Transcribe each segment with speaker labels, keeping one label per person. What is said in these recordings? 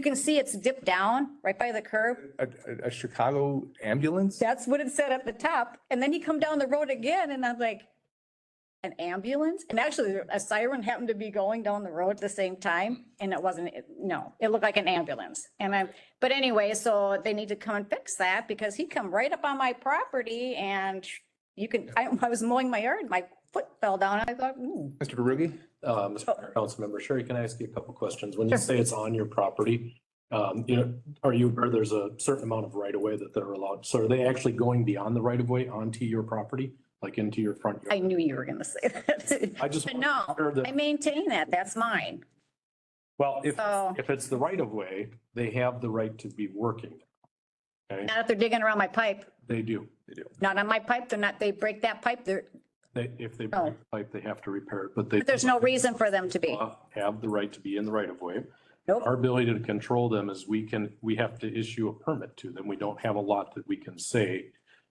Speaker 1: can see it's dipped down right by the curb.
Speaker 2: A, a- a Chicago ambulance?
Speaker 1: That's what it said at the top. And then you come down the road again and I'm like, an ambulance? And actually a siren happened to be going down the road at the same time and it wasn't, it- no, it looked like an ambulance. And I, but anyway, so they need to come and fix that because he come right up on my property and you can, I, I was mowing my yard, my foot fell down. I thought, "Hmm, ooh.
Speaker 2: Mr. Barugi?
Speaker 3: Uh,
Speaker 1: Oh.
Speaker 3: Mr. Mayor, Councilmember Sherry, can I ask you a couple questions? When you say it's on your property, um, you know, are you, aware there's a certain amount of right of way that they're allowed? So are they actually going beyond the right of way onto your property, like into your front
Speaker 1: I
Speaker 3: yard?
Speaker 1: knew you were gonna say that.
Speaker 3: I just.
Speaker 1: But no,
Speaker 3: Or the-
Speaker 1: I maintain that. That's mine.
Speaker 3: Well, if,
Speaker 1: So-
Speaker 3: if it's the right of way, they have the right to be working. Okay,
Speaker 1: Not if they're digging around my pipe,
Speaker 3: they do. They do.
Speaker 1: not on my pipe. They're not, they break that pipe. They're,
Speaker 3: They, if they
Speaker 1: No.
Speaker 3: break the pipe, they have to repair it, but they.
Speaker 1: Oh. But there's no reason for them to be.
Speaker 3: Have the right to be in the right of way.
Speaker 1: Nope.
Speaker 3: Our ability to control them is we can, we have to issue a permit to them. We don't have a lot that we can say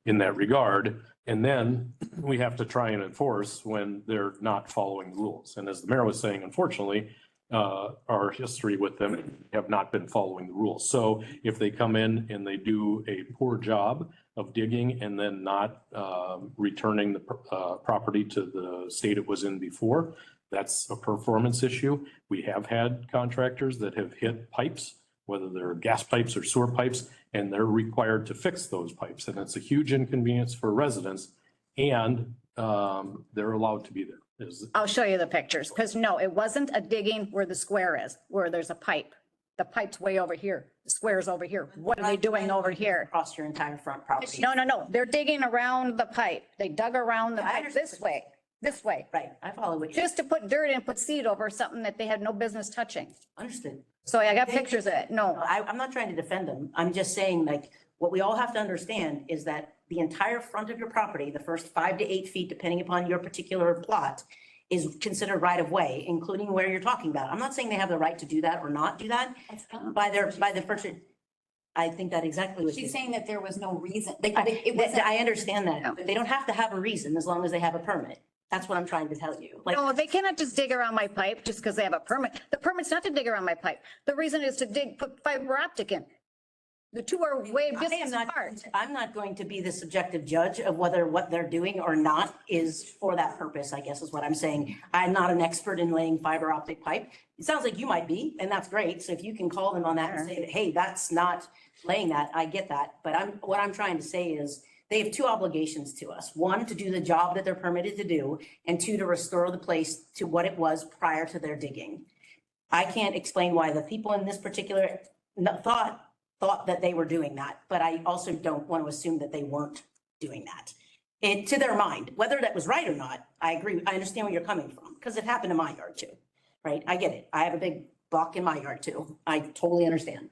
Speaker 3: in that regard. And then we have to try and enforce when they're not following the rules. And as the mayor was saying, unfortunately, uh, our history with them have not been following the rules. So if they come in and they do a poor job of digging and then not, um, returning the, pr- uh, property to the state it was in before, that's a performance issue. We have had contractors that have hit pipes, whether they're gas pipes or sewer pipes, and they're required to fix those pipes. And it's a huge inconvenience for residents and, um, they're allowed to be there. Is,
Speaker 1: I'll show you the pictures, because no, it wasn't a digging where the square is, where there's a pipe. The pipe's way over here, the square's over here. What are they doing over here?
Speaker 4: Across your entire front property.
Speaker 1: No, no, no, they're digging around the pipe. They dug around the
Speaker 4: I
Speaker 1: pipe this way, this way,
Speaker 4: Right, I follow what you
Speaker 1: just to put dirt and put seed over something that they had no business touching.
Speaker 4: understood.
Speaker 1: So I got pictures of it. No,
Speaker 4: I, I'm not trying to defend them. I'm just saying like, what we all have to understand is that the entire front of your property, the first five to eight feet, depending upon your particular plot, is considered right of way, including where you're talking about. I'm not saying they have the right to do that or not do that by their, by the person. I think that exactly what you.
Speaker 5: She's saying that there was no reason, like,
Speaker 4: I-
Speaker 5: they- it wasn't.
Speaker 4: I understand
Speaker 1: No.
Speaker 4: that, but they don't have to have a reason as long as they have a permit. That's what I'm trying to tell you. Like,
Speaker 1: no, they cannot just dig around my pipe just because they have a permit. The permit's not to dig around my pipe. The reason is to dig, put fiber optic in. The two are way
Speaker 4: I am
Speaker 1: distance
Speaker 4: not,
Speaker 1: apart.
Speaker 4: I'm not going to be the subjective judge of whether what they're doing or not is for that purpose, I guess is what I'm saying. I'm not an expert in laying fiber optic pipe. It sounds like you might be, and that's great. So if you can call them on that and say, that, hey, that's not laying that, I get that. But I'm, what I'm trying to say is they have two obligations to us. One, to do the job that they're permitted to do, and two, to restore the place to what it was prior to their digging. I can't explain why the people in this particular n- thought, thought that they were doing that, but I also don't want to assume that they weren't doing that. It, to their mind, whether that was right or not, I agree, I understand where you're coming from, because it happened in my yard too, right? I get it. I have a big buck in my yard too. I totally understand.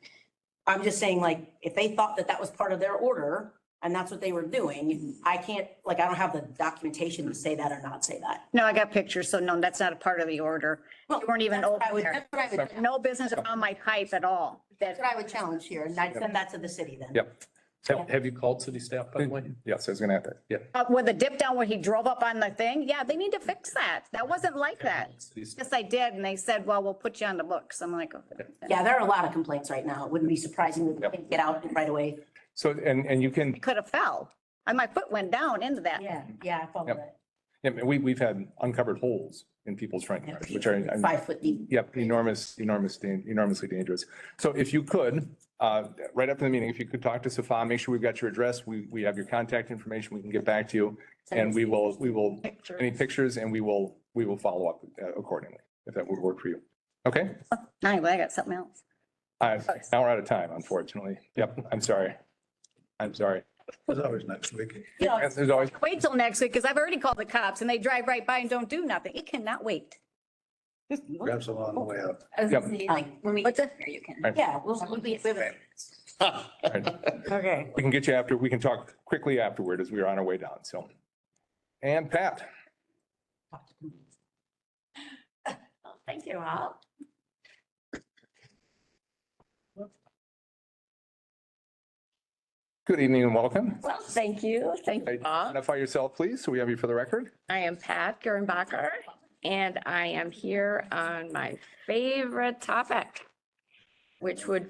Speaker 4: I'm just saying like, if they thought that that was part of their order and that's what they were doing, I can't, like, I don't have the documentation to say that or not say that.
Speaker 1: No, I got pictures, so no, that's not a part of the order. You weren't even
Speaker 4: That's what
Speaker 1: over
Speaker 4: I would-
Speaker 1: there.
Speaker 5: That's what I would, that's
Speaker 1: No business around my pipe at all. That,
Speaker 5: what I would challenge here, and I,
Speaker 4: I'd send that to the city then.
Speaker 2: Yep.
Speaker 3: have, have you called city staff, by the way?
Speaker 2: Yes, I was gonna have that. Yeah.
Speaker 1: uh, with the dip down where he drove up on the thing, yeah, they need to fix that. That wasn't like that.
Speaker 3: City staff.
Speaker 1: Yes, I did, and they said, well, we'll put you on the books. I'm like, okay.
Speaker 4: Yeah, there are a lot of complaints right now. It wouldn't be surprising if they get out right away.
Speaker 2: So, and, and you can,
Speaker 1: could have fell. And my foot went down into that.
Speaker 4: Yeah, yeah, I follow
Speaker 2: Yep.
Speaker 4: that.
Speaker 2: yeah, we, we've had uncovered holes in people's front yards, which are, I'm-
Speaker 4: Five foot deep.
Speaker 2: Yep, enormous, enormous, dan- enormously dangerous. So if you could, uh, right after the meeting, if you could talk to Safa, make sure we've got your address, we, we have your contact information, we can get back to you. And we will, we will, any pictures, and we will, we will follow up uh, accordingly, if that would work for you. Okay?
Speaker 1: Anyway, I got something else.
Speaker 2: I,
Speaker 6: Oh,
Speaker 2: now we're out of time, unfortunately. Yep, I'm sorry. I'm sorry.
Speaker 7: It's always next week.
Speaker 2: As there's always,
Speaker 1: Wait till next week, because I've already called the cops and they drive right by and don't do nothing. It cannot wait.
Speaker 7: Grab some on the way up.
Speaker 5: I was
Speaker 2: Yep.
Speaker 5: gonna say, like, when we get
Speaker 1: What's
Speaker 5: there,
Speaker 1: that?
Speaker 5: you can.
Speaker 2: Right.
Speaker 4: Yeah, we'll, we'll be, we
Speaker 2: all right.
Speaker 4: okay.
Speaker 2: we can get you after, we can talk quickly afterward as we are on our way down, so. And Pat?
Speaker 4: Thank you all.
Speaker 2: Good evening and welcome.
Speaker 6: Well, thank you. Thank you. all.
Speaker 2: Identify yourself, please, so we have you for the record.
Speaker 6: I am Pat Gerenbacher and I am here on my favorite topic, which would be.